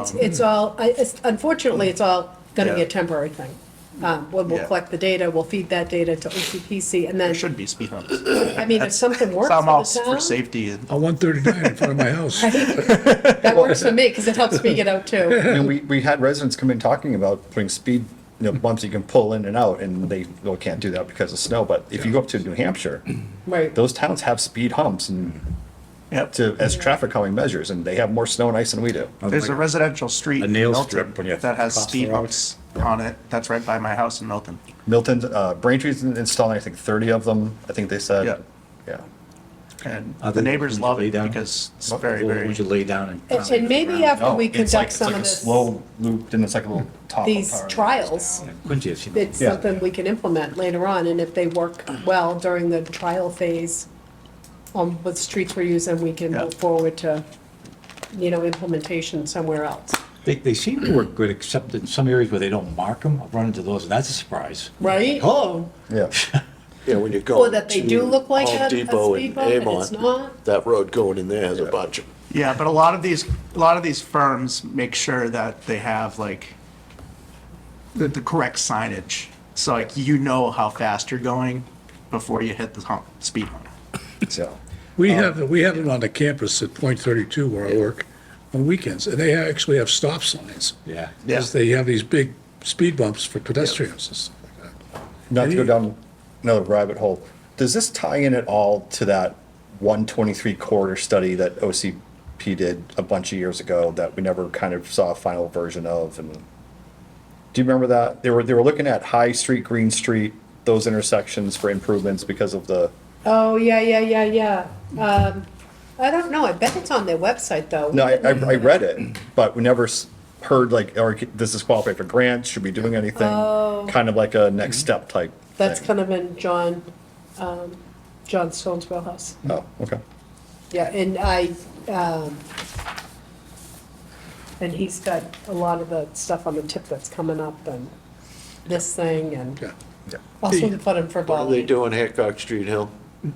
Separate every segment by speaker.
Speaker 1: It's, it's all, I- it's- unfortunately, it's all going to be a
Speaker 2: Yeah.
Speaker 1: temporary thing. Um, When we'll
Speaker 2: Yeah.
Speaker 1: collect the data, we'll feed that data to OCPC, and then,
Speaker 2: There should be speed humps.
Speaker 1: I mean, if something works
Speaker 2: Some
Speaker 1: for
Speaker 2: offs
Speaker 1: the
Speaker 2: for
Speaker 1: town,
Speaker 2: safety and
Speaker 3: on 139 in front of my house.
Speaker 1: that works for me, because it helps me get out too.
Speaker 4: And we, we had residents come in talking about putting speed, you know, bumps you can pull in and out, and they, well, can't do that because of snow, but if you go up to New Hampshire,
Speaker 1: Right.
Speaker 4: those towns have speed humps and
Speaker 2: Yep.
Speaker 4: to, as traffic calming measures, and they have more snow and ice than we do.
Speaker 2: There's a residential street
Speaker 5: A
Speaker 2: in
Speaker 5: nail
Speaker 2: Milton
Speaker 5: strip when you
Speaker 2: that has
Speaker 5: cross the
Speaker 2: speed
Speaker 5: road.
Speaker 2: humps on it. That's right by my house in Milton.
Speaker 4: Milton, uh, Braintree's installing, I think, thirty of them, I think they
Speaker 2: Yeah.
Speaker 4: said. Yeah.
Speaker 2: And
Speaker 5: Are
Speaker 2: the
Speaker 5: they-
Speaker 2: neighbors
Speaker 5: would you
Speaker 2: love
Speaker 5: lay
Speaker 2: it
Speaker 5: down?
Speaker 2: because it's
Speaker 4: What-
Speaker 2: very,
Speaker 5: Or
Speaker 2: very,
Speaker 5: would you lay down
Speaker 1: And
Speaker 5: and?
Speaker 1: and maybe after
Speaker 4: No,
Speaker 1: we
Speaker 4: it's
Speaker 1: conduct
Speaker 4: like- it's
Speaker 1: some
Speaker 4: like
Speaker 1: of
Speaker 4: a
Speaker 1: this,
Speaker 4: Slow loop, then it's like a little top.
Speaker 1: these trials,
Speaker 5: Quincy, has seen it.
Speaker 1: it's
Speaker 4: Yeah.
Speaker 1: something we can implement later on, and if they work well during the trial phase on what streets we're using, we can
Speaker 2: Yeah.
Speaker 1: move forward to, you know, implementation somewhere else.
Speaker 5: They, they seem to work good, except in some areas where they don't mark them, I've run into those, and that's a surprise.
Speaker 1: Right?
Speaker 5: Hello?
Speaker 4: Yeah.
Speaker 6: Yeah, when you go.
Speaker 1: Or that they
Speaker 6: to
Speaker 1: do look like a-
Speaker 6: Home
Speaker 1: a
Speaker 6: Depot
Speaker 1: speed
Speaker 6: and
Speaker 1: bump and it's
Speaker 6: Avon,
Speaker 1: not.
Speaker 6: that road going in there has a bunch of,
Speaker 2: yeah, but a lot of these, a lot of these firms make sure that they have like the, the correct signage. So like, you know how fast you're going before you hit the hump, speed hump.
Speaker 4: So,
Speaker 3: We have, we have it on the campus at Point 32 where I work on weekends, and they actually have stop signs.
Speaker 5: Yeah.
Speaker 3: Because they have these big speed bumps for pedestrians and stuff like that.
Speaker 4: not to go down another rabbit hole, does this tie in at all to that one twenty-three corridor study that OCP did a bunch of years ago that we never kind of saw a final version of and? Do you remember that? They were, they were looking at High Street, Green Street, those intersections for improvements because of the,
Speaker 1: Oh, yeah, yeah, yeah, yeah. Um, I don't know, I bet it's on their website, though.
Speaker 4: no, I, I I read it, but we never s- heard like, or this is qualified for grants, should we be doing anything? Kind of like a next step type.
Speaker 1: Oh. That's
Speaker 4: thing.
Speaker 1: kind of in John, um, John Stone's wheelhouse.
Speaker 4: Oh, okay.
Speaker 1: Yeah, and I, um, and he's got a lot of the stuff on the tip that's coming up and this thing and
Speaker 3: Yeah.
Speaker 4: Yeah.
Speaker 1: also the fun and
Speaker 6: what are they
Speaker 1: frivolity.
Speaker 6: doing Hancock Street Hill?
Speaker 1: Hmm?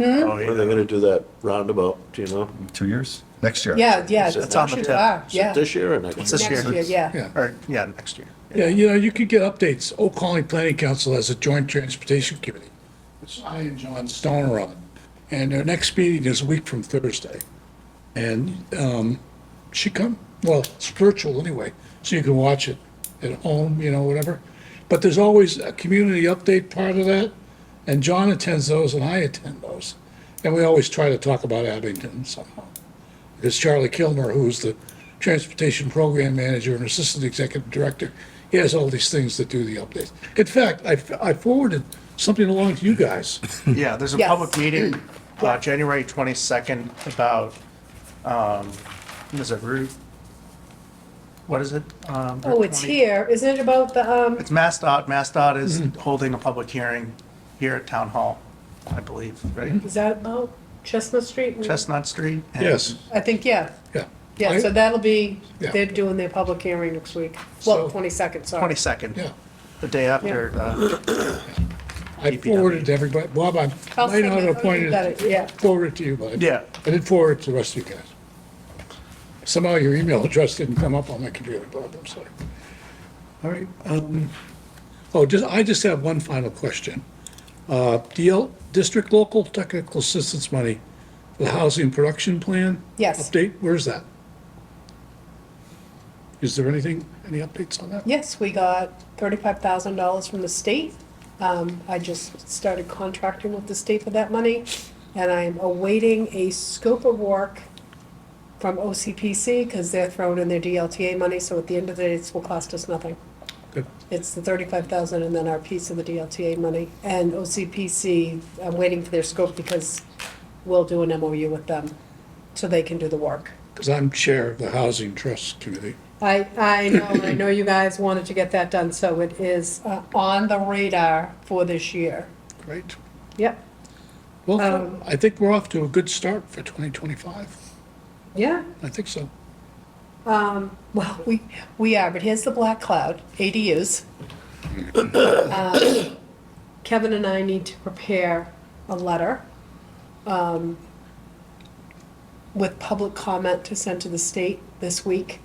Speaker 2: Oh,
Speaker 6: When are they
Speaker 2: yeah.
Speaker 6: gonna do that roundabout, do you know?
Speaker 4: Two years? Next year.
Speaker 1: Yeah, yeah.
Speaker 6: It's
Speaker 2: on the
Speaker 1: actually
Speaker 2: tip.
Speaker 1: are,
Speaker 6: Is it
Speaker 1: Yeah,
Speaker 6: This year or next?
Speaker 2: It's
Speaker 6: year?
Speaker 2: this
Speaker 1: next year,
Speaker 2: year.
Speaker 1: yeah.
Speaker 3: Yeah.
Speaker 2: Or, yeah, next year.
Speaker 3: Yeah, you know, you could get updates. Old Colony Planning Council has a joint transportation committee. It's I and John Stone are on, and their next meeting is a week from Thursday. And um, she come, well, it's virtual anyway, so you can watch it at home, you know, whatever. But there's always a community update part of that, and John attends those and I attend those. And we always try to talk about Abington somehow because Charlie Kilmer, who's the transportation program manager and assistant executive director, he has all these things that do the updates. In fact, I, I forwarded something along to you guys.
Speaker 2: Yeah, there's a
Speaker 1: Yes.
Speaker 2: public meeting, uh, January twenty-second about, um, is it Route? What is it? Um,
Speaker 1: Oh, it's
Speaker 2: 20
Speaker 1: here. Mm-hmm. Isn't it about the, um,
Speaker 2: It's MassDOT. MassDOT is holding a public hearing here at Town Hall, I believe, right?
Speaker 1: is that about Chestnut Street? and-
Speaker 2: Chestnut Street? and-
Speaker 3: Yes,
Speaker 1: I think, yeah.
Speaker 3: yeah.
Speaker 1: Yeah, so that'll be,
Speaker 3: Yeah.
Speaker 1: they're doing their public hearing next week. Well,
Speaker 3: So-
Speaker 1: 22nd, sorry.
Speaker 3: Yeah.
Speaker 2: 22nd, the day after, uh,
Speaker 3: I forwarded to everybody. Bob, I
Speaker 1: I'll
Speaker 3: might
Speaker 1: send
Speaker 3: not
Speaker 1: it. Oh,
Speaker 3: have
Speaker 1: you
Speaker 3: pointed,
Speaker 1: got it, yeah.
Speaker 3: forwarded to you, but. I did-
Speaker 2: Yeah.
Speaker 3: I did forward it to the rest of you guys. Somehow your email address didn't come up on my computer, Bob, I'm sorry. All right, um, oh, just, I just have one final question. Uh, DL, District Local Technical Assistance Money, for the Housing Production Plan?
Speaker 1: Yes.
Speaker 3: Update, where's that? Is there anything, any updates on that?
Speaker 1: Yes, we got thirty-five thousand dollars from the state. Um, I just started contracting with the state for that money, and I'm awaiting a scope of work from OCPC, because they're throwing in their DLTA money, so at the end of the day, this will cost us nothing.
Speaker 3: Good.
Speaker 1: It's the thirty-five thousand and then our piece of the DLTA money. And OCPC, I'm waiting for their scope because we'll do an MOU with them, so they can do the work.
Speaker 3: Because I'm Chair of the Housing Trust Committee.
Speaker 1: I, I know, I know you guys wanted to get that done, so it is uh, on the radar for this year.
Speaker 3: Great.
Speaker 1: Yep,
Speaker 3: Well, I think we're off to a good start for 2025.
Speaker 1: yeah,
Speaker 3: I think so.
Speaker 1: well, we, we are, but here's the black cloud, ADUs. Um, Kevin and I need to prepare a letter um, with public comment to send to the state this week